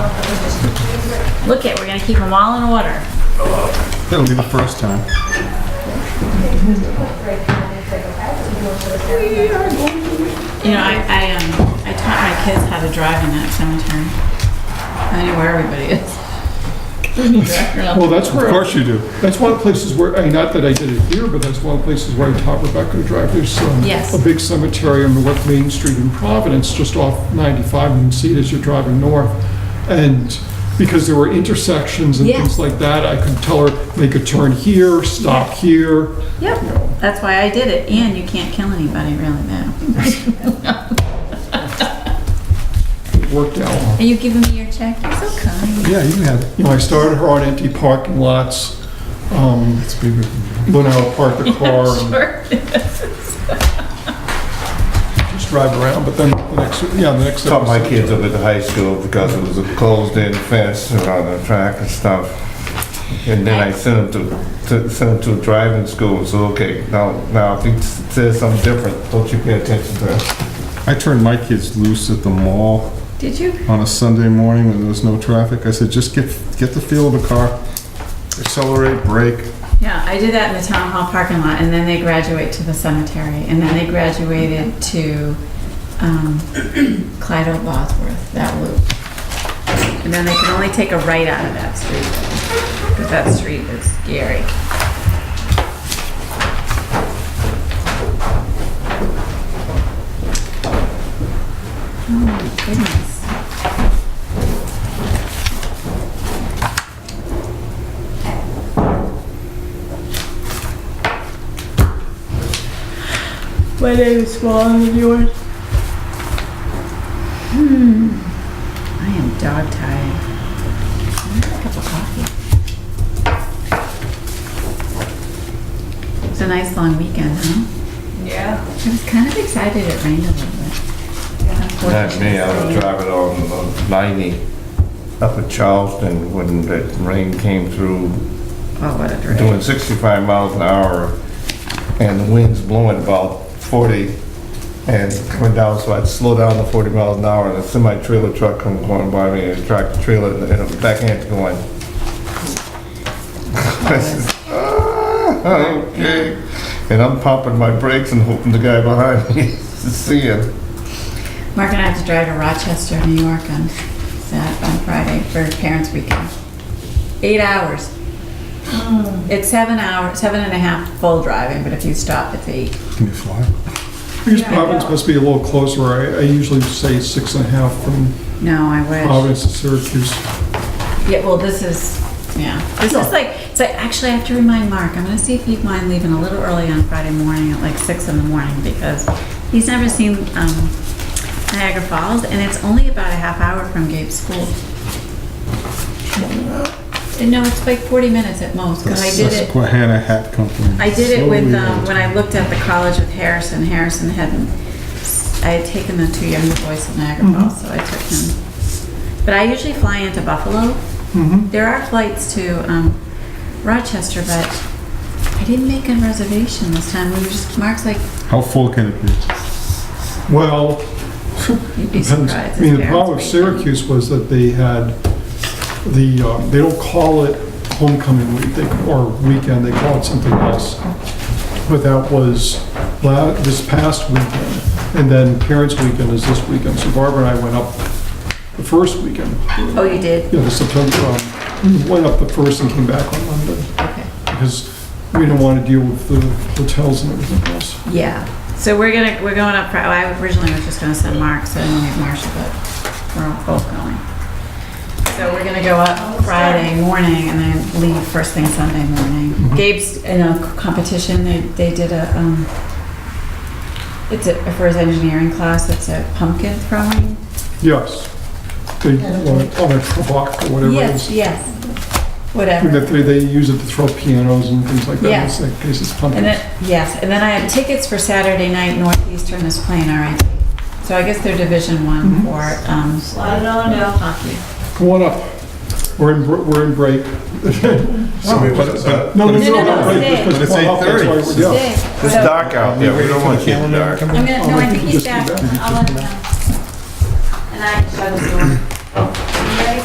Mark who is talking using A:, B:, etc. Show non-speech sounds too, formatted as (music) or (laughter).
A: Look it, we're gonna keep them all in order.
B: That'll be the first time.
A: You know, I, I, um, I taught my kids how to drive in that cemetery. I know where everybody
C: Well,
A: (laughs) is.
C: that's
B: Of
C: where,
B: course you do.
C: that's one of the places where, I mean, not that I did it here, but that's one of the places where I taught Rebecca to drive. There's um,
A: Yes.
C: a big cemetery on North Main Street in Providence, just off 95, and you can see it as you're driving north. And because there were intersections and
A: Yes.
C: things like that, I could tell her, make a turn here, stop here.
A: Yep, that's why I did it, and you can't kill anybody really now.
C: It worked out.
A: Are you giving me your check? You're so kind.
B: Yeah, you can have it.
C: You know, I started her on empty parking lots, um,
B: It's bigger than you.
C: went out, parked the car, and
A: Sure. (laughs)
C: just drive around, but then the next, yeah, the next.
D: Taught my
C: episode-
D: kids up at the high school because it was a closed-in fence around the track and stuff. And then I sent them to, to, sent them to driving school, so okay, now, now if it says something different, don't you pay attention to it.
B: I turned my kids loose at the mall
A: Did you?
B: on a Sunday morning when there was no traffic. I said, just get, get the feel of the car, accelerate, brake.
A: Yeah, I did that in the town hall parking lot, and then they graduate to the cemetery, and then they graduated to um, (clears throat) Clyde O. Bosworth, that loop. And then they can only take a right out of that street, because that street is scary. Oh my goodness.
E: My name is smaller than yours.
A: I am dog tired. Can I have a cup of coffee. It was a nice long weekend, huh?
E: Yeah.
A: I was kind of excited it rained a little bit.
D: Not me, I was driving on uh, ninety up at Charleston when that rain came through,
A: Oh, what a drag.
D: doing sixty-five miles an hour, and the wind's blowing about forty, and went down, so I'd slow down to forty miles an hour, and a semi-trailer truck come going by me, and a tractor trailer, and a backhand going. I says, "Ah, Okay, and I'm popping my brakes and hoping the guy behind me (laughs) is seeing.
A: Mark and I have to drive to Rochester, New York on Sat, on Friday for Parents Weekend. Eight hours. It's seven hours, seven and a half full driving, but if you stop, it's eight.
B: Can you fly?
C: I guess Providence must be a little closer. I, I usually say six and a half from
A: No, I
D: Oh,
A: wish.
C: Providence to Syracuse.
A: Yeah, well, this is, yeah, this is like, it's like, actually, I have to remind Mark, I'm gonna see if he'd mind leaving a little early on Friday morning at like six in the morning, because he's never seen, um, Niagara Falls, and it's only about a half hour from Gabe's school. And no, it's like forty minutes at most,
B: The
A: cause I did it,
B: Susquehanna Hat Company.
A: I did it
B: So
A: with, um,
B: weird.
A: when I looked at the college with Harrison, Harrison hadn't, I had taken the two younger boys to Niagara Falls, so I took him. But I usually fly into Buffalo,
C: Mm-hmm.
A: there are flights to um, Rochester, but I didn't make a reservation this time. We were just, Mark's like,
B: How full can it be?
C: Well,
A: you'd be
C: depends.
A: surprised.
C: I
A: his
C: mean, the
A: parents
C: problem with
A: wait.
C: Syracuse was that they had the, um, they don't call it homecoming week, they, or weekend, they call it something else. But that was la- this past weekend, and then Parents Weekend is this weekend. So Barbara and I went up the first weekend,
A: Oh, you did?
C: you know, the September, um, we went up the first and came back on Monday.
A: Okay.
C: because we don't want to deal with the hotels and everything else.
A: Yeah. So we're gonna, we're going up, Fri- well, I originally was just gonna send Mark, so I didn't need Marcia, but we're all both going. So we're gonna go up Friday morning and then leave first thing Sunday
C: Mm-hmm.
A: morning. Gabe's in a c- competition, they, they did a, um, it's a, for his engineering class, it's a pumpkin throwing
C: Yes. They, on a truck or whatever it
A: Yes,
C: is.
A: yes,
C: And
A: whatever.
C: That they, they use it to throw pianos and things like
A: Yeah.
C: that, in this case it's
A: And
C: pumpkins.
A: then, yes, and then I have tickets for Saturday night Northeastern is playing RIT. So I guess they're Division One
C: Mhm.
A: for, um,
E: Slide it on down.
A: hockey.
C: Come on up, we're in, br- we're in break.
D: So
C: (laughs)
D: we
B: But-
D: was,
B: but-
D: uh,
C: No,
B: but
C: no,
B: it's-
C: no,
A: no,
C: no, break,
A: stay.
C: just 'cause
B: But it's
C: come up, that's
B: 8:30.
C: why we're- yeah.
A: Yay.
D: It's
A: So-
D: dark out there, we don't want you in dark.
A: I'm gonna, no, I think he's
C: Just do
A: back.
C: that.
A: I'll let him know. And I shut his door. You ready?